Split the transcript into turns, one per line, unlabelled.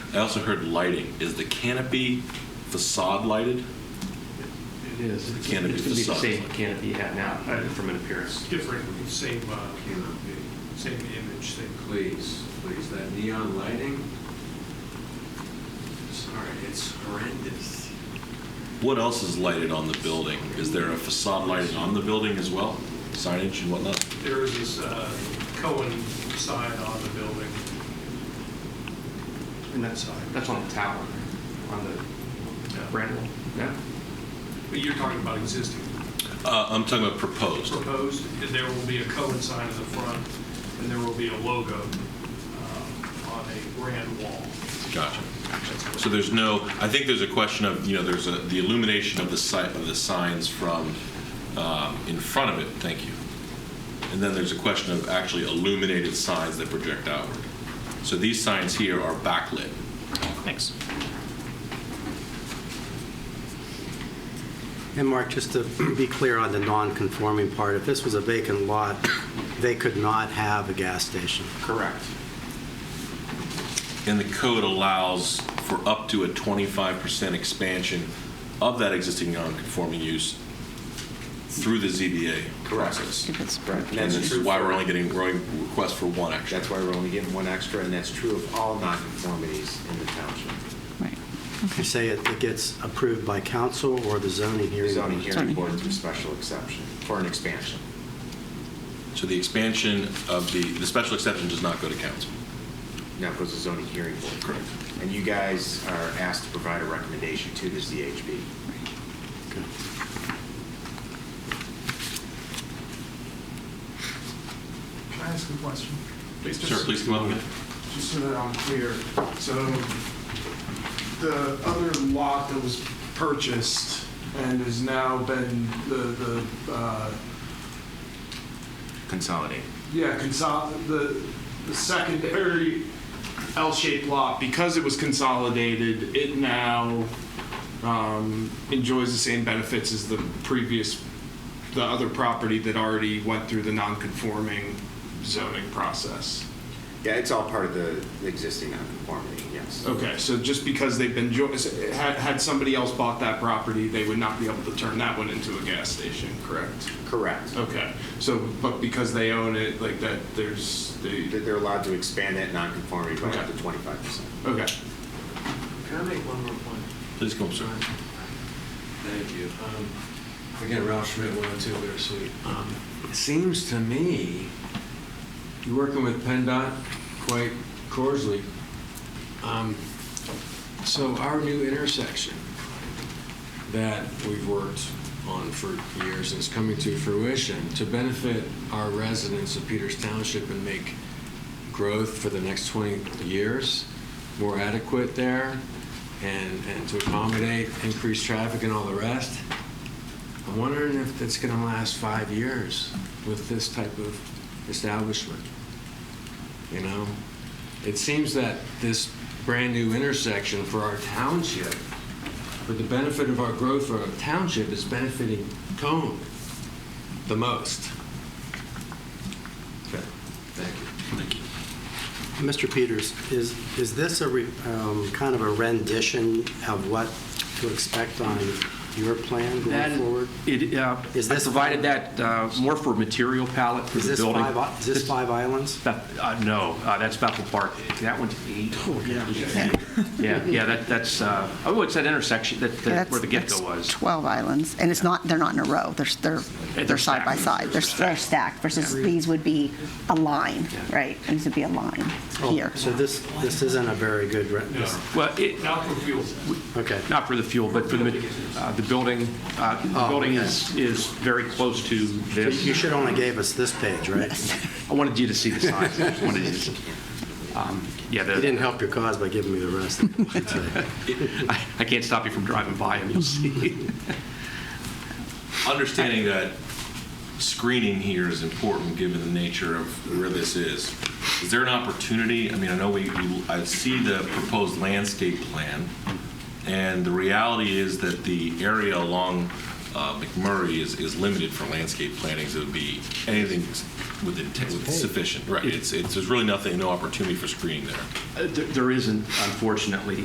I also heard lighting. Is the canopy facade lighted?
It is. It's
Canopy
it's gonna be the
facade.
same canopy you have now, uh, from an appearance.
It's different, same, uh, same image, same.
Please, please, that neon lighting, sorry, it's horrendous.
What else is lighted on the building? Is there a facade lighting on the building as well? Signage and whatnot?
There is this uh, Cohen sign on the building.
And that's, that's on the tower, on the uh,
Yeah.
Brandon, yeah?
But you're talking about existing
Uh, I'm talking about proposed.
proposed, and there will be a Cohen sign in the front, and there will be a logo um, on a brand wall.
Gotcha. So there's no, I think there's a question of, you know, there's a, the illumination of the site, of the signs from, um, in front of it, thank you. And then there's a question of actually illuminated signs that project outward. So these signs here are backlit.
Thanks.
And Mark, just to be clear on the non-conforming part, if this was a vacant lot, they could not have a gas station.
Correct.
And the code allows for up to a 25% expansion of that existing non-conforming use through the ZBA
Correct.
process.
If it's broken.
And
And
that's
this
true
is why
for-
we're only getting, we're only requests for one action.
That's why we're only getting one extra, and that's true of all nonconformities in the township.
Right.
You say it it gets approved by council or the zoning
The
hearing?
zoning hearing
Zoning.
board through special exception, for an expansion.
So the expansion of the, the special exception does not go to council.
Now goes to zoning hearing board.
Correct.
And you guys are asked to provide a recommendation to the ZHB.
Okay.
Can I ask a question? Just-
Sir, please come up. again.
Just so that I'm clear, so the other lot that was purchased and has now been the, the, uh,
Consolidate.
yeah, consol, the, the secondary L-shaped lot, because it was consolidated, it now um, enjoys the same benefits as the previous, the other property that already went through the non-conforming zoning process.
Yeah, it's all part of the the existing nonconformity, yes.
Okay, so just because they've been, jo- had, had somebody else bought that property, they would not be able to turn that one into a gas station, correct?
Correct.
Oh.
Okay, so, but because they own it, like that, there's, they,
That They're allowed to expand that nonconformity by up to
Okay.
25%.
okay.
Can I make one more point?
Please come up, sir.
Thank you. Um, Again, Ralph Schmidt, 102 Bitter Sweet. Um, It seems to me, you're working with PennDOT quite coarsely. Um, So our new intersection that we've worked on for years and is coming to fruition to benefit our residents of Peters Township and make growth for the next 20 years more adequate there and, and to accommodate increased traffic and all the rest. I'm wondering if that's going to last five years with this type of establishment. You know, it seems that this brand-new intersection for our township, for the benefit of our growth for our township, is benefiting Cone the most. Okay, thank you.
Mr. Peters, is, is this a re- um, kind of a rendition of what to expect on your plan going
That-
forward?
It, uh,
Is
I
this-
provided that uh, more for material palette for
Is
the
this
building.
five, i- is this five islands?
Beth- uh, No, uh, that's Bethel Park. That one's eight.
Oh,
Yeah, yeah, that- that's, uh, oh, it's that intersection, that- that
That's-
where the
that's
get-go was.
12 islands, and it's not, they're not in a row, they're, they're,
they're
they're side by
stacked.
side, they're they're stacked, versus these would be a line, right? These would be a line here.
So this, this isn't a very good, re- this-
Well, it,
Not for fuel.
okay.
not for the fuel, but for the, ma- uh, the building, uh, the
Oh,
building
okay.
is, is very close to this.
You should only gave us this page, right?
I wanted you to see the signs. I just wanted you to see. Um, Yeah,
You didn't
the,
help your cause by giving me the rest. I should say.
I I can't stop you from driving by them, you'll see.
Understanding that screening here is important, given the nature of where this is. Is there an opportunity, I mean, I know we, we- I see the proposed landscape plan, and the reality is that the area along uh, McMurray is, is limited for landscape planning, so it would be anything with the, with sufficient, right? It's, it's, there's really nothing, no opportunity for screening there.
Uh, there- There isn't, unfortunately.